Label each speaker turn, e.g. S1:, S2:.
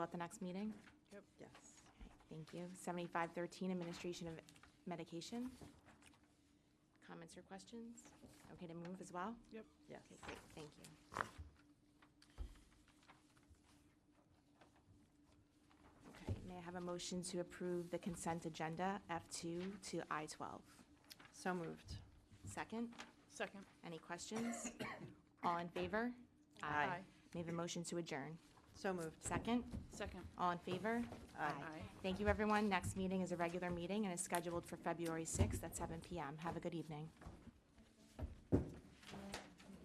S1: At the next meeting?
S2: Yes.
S1: Okay, Thank you. 7513, Administration of Medication. Comments or questions? Okay to move as well?
S3: Yep.
S2: Yes.
S1: Okay, great, thank you. Okay, may I have a motion to approve the consent agenda, F2 to I12?
S2: So moved.
S1: Second,
S3: Second.
S1: any questions? All in favor?
S2: Aye.
S1: May I have a motion to adjourn?
S2: So moved.
S1: Second?
S3: Second.
S1: All in favor?
S3: Aye.
S1: Thank you, everyone. Next meeting is a regular meeting and is scheduled for February 6th at 7 PM. Have a good evening.